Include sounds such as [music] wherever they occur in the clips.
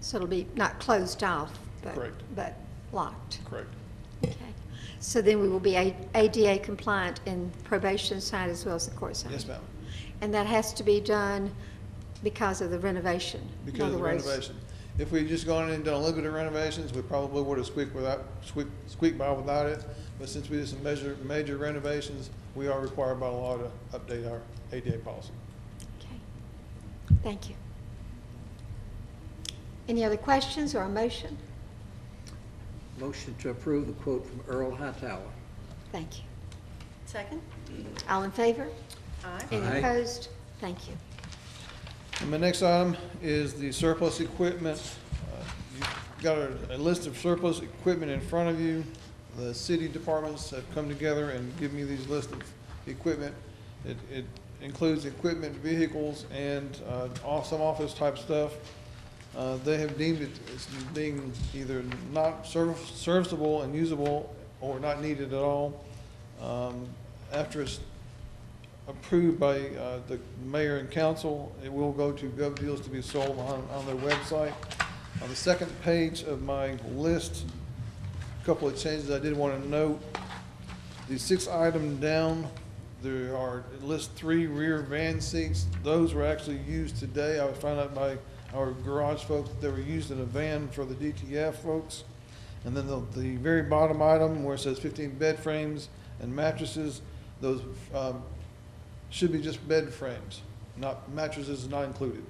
So it'll be not closed off, but, Correct. but locked. Correct. Okay. So then we will be A- ADA compliant in probation side as well as the court side? Yes, ma'am. And that has to be done because of the renovation? in Because of other the words. renovation. If we'd just gone in and done a little bit of renovations, we probably would have squeaked without, squeaked, squeaked by without it. But since we did some measure, major renovations, we are required by law to update our ADA policy. Okay. Thank you. Any other questions or a motion? Motion to approve the quote from Earl Hightower. Thank you. Second? All in favor? Aye. Any Aye. opposed? Thank you. And my next item is the surplus equipment. Uh, You've got a, a list of surplus equipment in front of you. The city departments have come together and give me these list of equipment. It, it includes equipment, vehicles, and, uh, off, some office type stuff. Uh, they have deemed it as being either not serv- serviceable and usable or not needed at all. Um, after it's approved by uh, the mayor and council. It will go to GovDeals to be sold on, on their website. On the second page of my list, a couple of changes I did want to note. The sixth item down, there are, it lists three rear van seats. Those were actually used today. I found out by our garage folks that they were used in a van for the DTF folks. And then the, the very bottom item where it says fifteen bed frames and mattresses, those, um, should be just bed frames, not mattresses not included.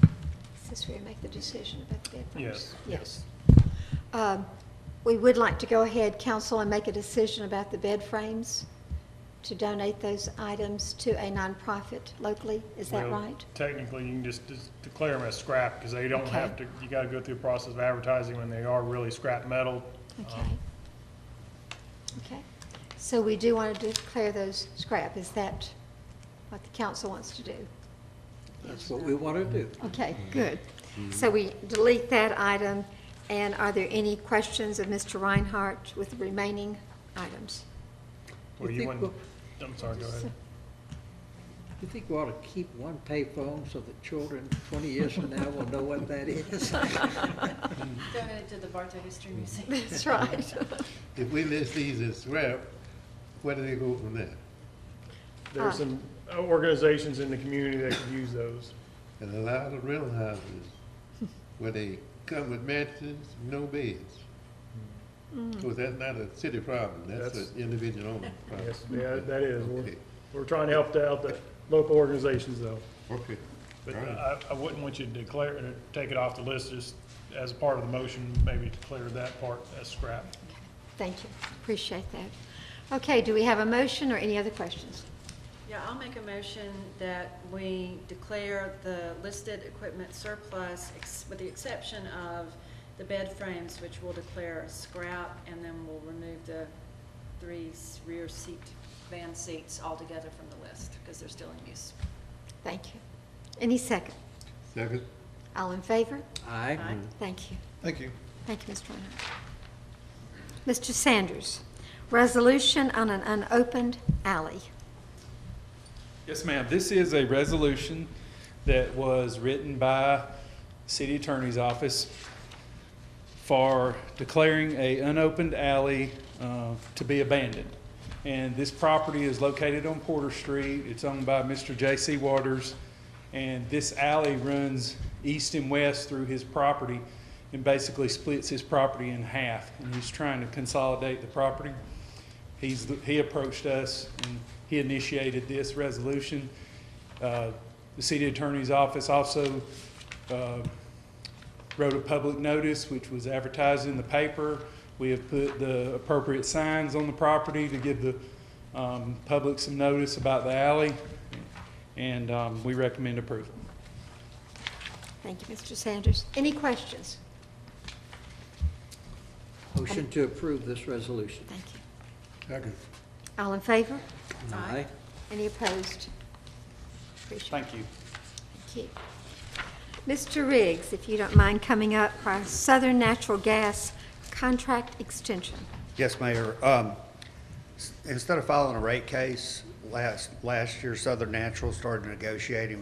Is this where you make the decision about the bed Yes, frames? Um, We would like to go ahead, council, and make a decision about the bed frames, to donate those items to a nonprofit locally. Is that Well, right? Technically, you can just just declare them as scrap, because they don't Okay. have to, you gotta go through a process of advertising when they are really scrap metal. Um, Uh-huh. Okay. Okay. So we do want to declare those scrap. Is that what the council wants to do? That's what we want to do. Okay, good. So we delete that item, and are there any questions of Mr. Reinhardt with the remaining items? Well, You you think wouldn't, I'm sorry, go ahead. You think we ought to keep one payphone so that children 20 years from now will know what that is? Donated to the Bartow History Museum. [laughs] That's right. If we list these as scrap, where do they go from there? There uh, are some uh, organizations in the community that could use those. And a lot of rental houses, where they come with mattresses, no beds. Because that's not a city problem, that's That's- an individual owner problem. Yes, yeah, that is. We're, Okay, we're trying to help the- out the local organizations, though. okay. But uh, All right. I, I wouldn't want you to declare, uh, take it off the list, just as part of the motion, maybe declare that part as scrap. Thank you. Appreciate that. Okay, do we have a motion or any other questions? [laughs] Yeah, I'll make a motion that we declare the listed equipment surplus, ex- with the exception of the bed frames, which we'll declare as scrap, and then we'll remove the three s- rear seat, van seats altogether from the list, because they're still in use. Thank you. Any second? Second, All in favor? Aye. Aye. Thank you. Thank you. Thank you, Mr. Reinhardt. Mr. Sanders, resolution on an unopened alley. Yes, ma'am. This is a resolution that was written by City Attorney's Office for declaring a unopened alley uh, to be abandoned. And this property is located on Porter Street. It's owned by Mr. J.C. Waters. And this alley runs east and west through his property and basically splits his property in half. And he's trying to consolidate the property. He's, he approached us and he initiated this resolution. Uh, The city attorney's office also uh, wrote a public notice, which was advertised in the paper. We have put the appropriate signs on the property to give the um, public some notice about the alley, and um, we recommend approval. Thank you, Mr. Sanders. Any questions? Motion to approve this resolution. Thank you. second. All in favor? Aye. Any opposed? Appreciate it. Thank you. Thank you. Mr. Riggs, if you don't mind coming up for our Southern Natural Gas contract extension. Yes, Mayor. Um, s- Instead of filing a rate case, last, last year Southern Natural started negotiating